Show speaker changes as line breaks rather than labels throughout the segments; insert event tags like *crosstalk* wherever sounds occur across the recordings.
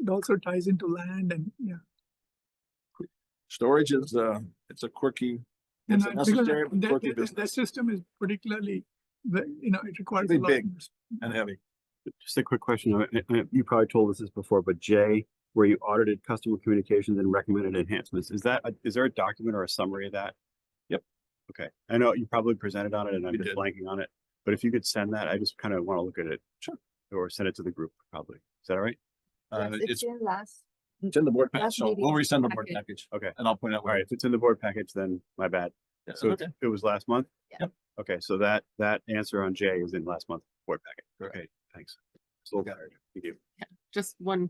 it also ties into land and, yeah.
Storage is, uh, it's a quirky,
And
It's a
I- because
necessary but
that-
quirky
that- that- That system is particularly, the- you know, it requires. a
Pretty
lot of
big.
investment.
and heavy.
Just a quick question. uh, uh, uh, You probably told us this before, but Jay, where you audited customer communications and recommended enhancements, is that, a- is there a document or a summary of that?
Yep.
Okay, I know you probably presented on it and I'm
We
just
did.
blanking on it, but if you could send that, I just kind of want to look at it.
Sure.
Or send it to the group probably. Is that all right?
Uh,
Yes,
it's,
It's in last,
it's in the board
That's
package, so
maybe
we'll
in the
resend the board package.
package.
Okay.
And I'll point out
All right,
where.
if it's in the board package, then my bad.
Yeah,
So
okay.
it's- it was last month?
Yeah.
Yep.
Okay, so that, that answer on Jay is in last month's board packet.
Correct.
Okay, thanks. It's a little
Got
better. Thank you.
just one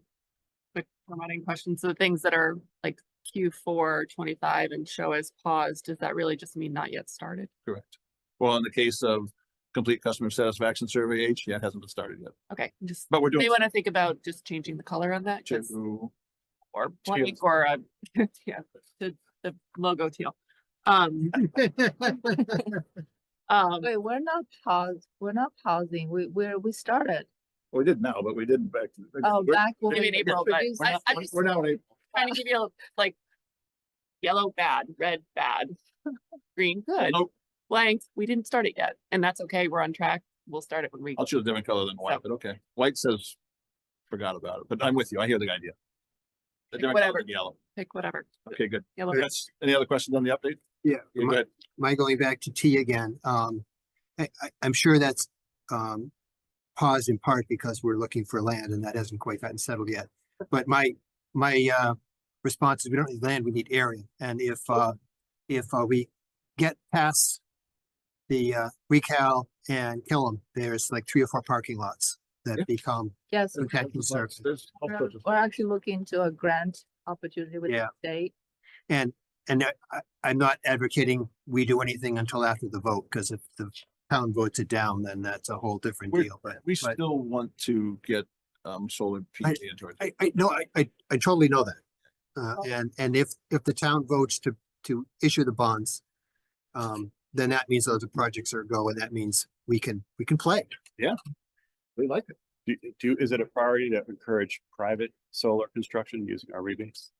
quick formatting question. So the things that are like Q four twenty-five and show as paused, does that really just mean not yet started?
Correct. Well, in the case of complete customer satisfaction survey H, yeah, it hasn't been started yet,
Okay, just,
but we're doing.
may want to think about just changing the color on that, 'cause-
to-
or
teal.
blank, or, uh, *laughs* yeah, the, the logo teal. Um,
*laughs*
um,
wait, we're not paused, we're not pausing, we, we're, we started.
Well, We did now, but we didn't back. to-
Oh,
we're-
back when
maybe
we
in April, but
introduced-
We're
I-
not-
I
we're-
just-
we're now, in April.
trying to give you like yellow bad, red bad, *laughs* green good,
Nope.
blank, we didn't start it yet, and that's okay, we're on track, we'll start it when we.
I'll choose a different color than white,
So-
but okay. White says, forgot about it, but I'm with you. I hear the idea. A different color
Whatever.
than Yellow.
Pick whatever.
Okay, good.
Yellow.
That's, any other questions on the update?
Yeah,
Yeah,
my-
go ahead.
my going back to T again, um, I, I, I'm sure that's, um, paused in part because we're looking for land and that hasn't quite gotten settled yet. But my, my, uh, response is we don't need land, we need area. And if, uh, if, uh, we get past the, uh, Recal and Killam, there's like three or four parking lots
Yeah.
that become,
Yes,
Okay, I'm sorry.
There's all
we're
sorts of-
we're actually looking into a grant opportunity with the
Yeah.
state.
and, and I- I, I'm not advocating we do anything until after the vote, because if the town votes it down, then that's a whole different
We're-
deal, but.
We
but-
still want to get, um, solar PV into it.
I, I, no, I, I, I totally know that. Uh, and, and if, if the town votes to, to issue the bonds, um, then that means those projects are a go and that means we can, we can play.
We like it.
Do, do, is it a priority to encourage private solar construction using our rebates?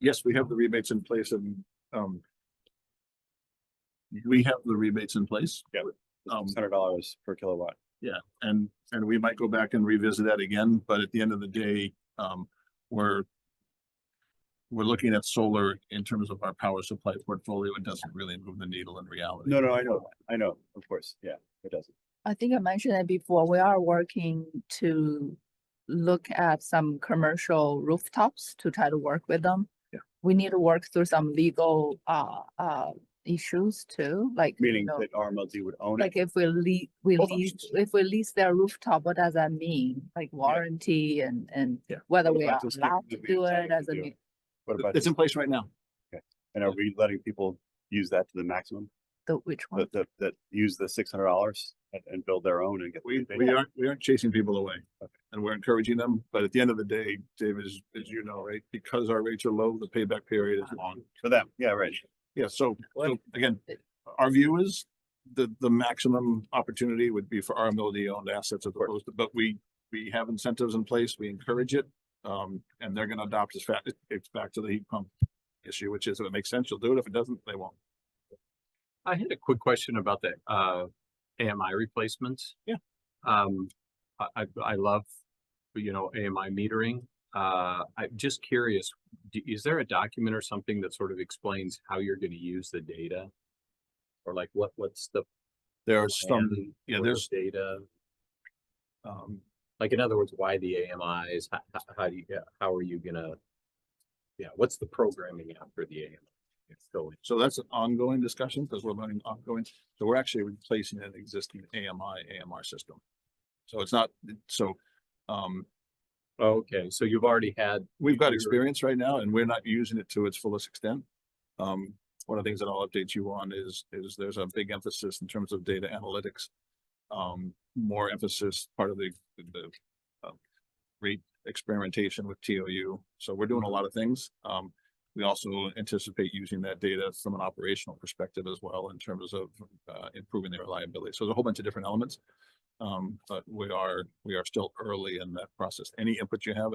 Yes, we have the rebates in place and, um, we have the rebates in place.
Yeah.
Um,
Hundred dollars per kilowatt.
and, and we might go back and revisit that again, but at the end of the day, um, we're we're looking at solar in terms of our power supply portfolio. It doesn't really move the needle in reality.
No, no, I know, I know, of course, yeah, it doesn't.
I think I mentioned it before, we are working to look at some commercial rooftops to try to work with them.
Yeah.
We need to work through some legal, uh, uh, issues too, like. you
Meaning
know,
that RMLD would own it.
Like if we lease, we
Both
lease,
options.
if we lease their rooftop, what does that mean? Like warranty and, and
Yeah.
whether
What
we
about
are
those people
allowed
that
to
we
do
decided
it
to
as a,
do
mu-
it? What about,
It's in place right now.
and are we letting people use that to the maximum,
the, which one?
that, that, that use the six hundred dollars and, and build their own and get?
We,
they-
we aren't, we aren't chasing people away and we're encouraging them, but at the end of the day, David, as, as you know, right, because our rates are low, the payback period is long.
For them, yeah, right.
Yeah, so, so again, our view is the, the maximum opportunity would be for RMLD owned assets as opposed to, but we, we have incentives in place, we encourage it. Um, and they're gonna adopt as fast, it's back to the heat pump issue, which is if it makes sense, you'll do it. If it doesn't, they won't.
I had a quick question about the uh AMI replacements.
Yeah.
Um, I I I love, you know, AMI metering. Uh, I'm just curious, d- is there a document or something that sort of explains how you're gonna use the data? Or like what what's the
There are
plan
some, yeah,
for the
there's,
data?
um,
Like in other words, why the AMIs? How how do you, yeah, how are you gonna? Yeah, what's the programming after the AMI? It's going.
So that's an ongoing discussion because we're learning ongoing. So we're actually replacing an existing AMI, AMR system. So it's not, so, um,
Okay, so you've already had
we've got
Sure.
experience right now and we're not using it to its fullest extent. Um, one of the things that I'll update you on is, is there's a big emphasis in terms of data analytics. Um, more emphasis, part of the, the, um, re experimentation with TOU. So we're doing a lot of things. Um, we also anticipate using that data from an operational perspective as well in terms of, uh, improving the reliability. So there's a whole bunch of different elements. Um, but we are, we are still early in that process. Any input you have